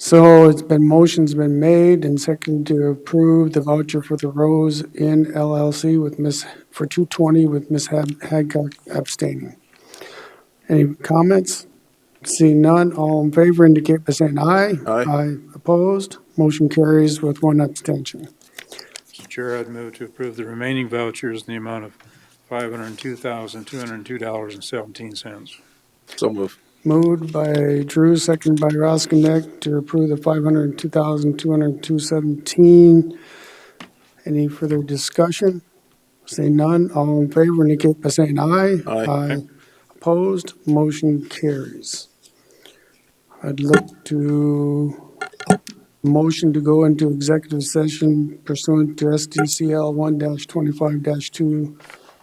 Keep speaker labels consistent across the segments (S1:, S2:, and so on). S1: So it's been, motion's been made and second to approve the voucher for the Rose Inn LLC with Miss, for 220 with Miss Hab- Hadcock abstaining. Any comments? Seeing none, all in favor indicate by saying aye.
S2: Aye.
S1: Aye opposed, motion carries with one abstention.
S3: Mr. Chair, I'd move to approve the remaining vouchers in the amount of $502,202.17.
S2: So move.
S1: Moved by Drew, second by Roskinek to approve the 502,202.17. Any further discussion? Say none, all in favor indicate by saying aye.
S2: Aye.
S1: Opposed, motion carries. I'd like to, motion to go into executive session pursuant to SDCL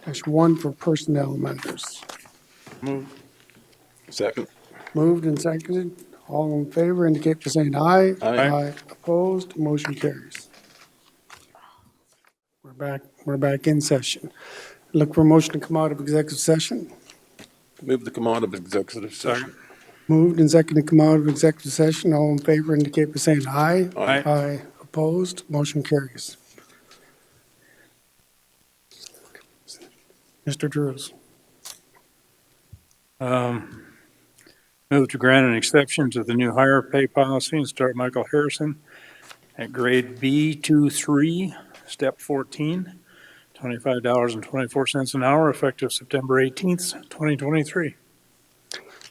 S1: 1-25-2-1 for personnel matters.
S3: Move.
S2: Second.
S1: Moved and seconded. All in favor indicate by saying aye.
S2: Aye.
S1: Opposed, motion carries. We're back, we're back in session. Look for a motion to come out of executive session.
S2: Move the command of executive session.
S1: Moved and seconded to come out of executive session. All in favor indicate by saying aye.
S2: Aye.
S1: Aye. Opposed, motion carries. Mr. Drews.
S3: Um, Move to grant an exception to the new higher pay policy and start Michael Harrison at grade B23, step 14, $25.24 an hour, effective September 18th, 2023.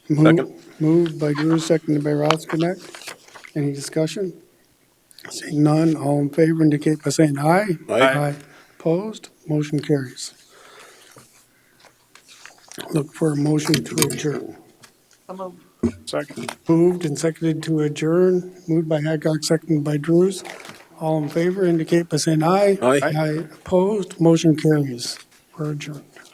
S1: Mo-
S2: Second.
S1: Moved by Drew, seconded by Roskinek. Any discussion? Seeing none, all in favor indicate by saying aye.
S2: Aye.
S1: Opposed, motion carries. Look for a motion to adjourn.
S3: Second.
S1: Moved and seconded to adjourn, moved by Haddock, seconded by Drews. All in favor indicate by saying aye.
S2: Aye.
S1: Aye. Opposed, motion carries. We're adjourned.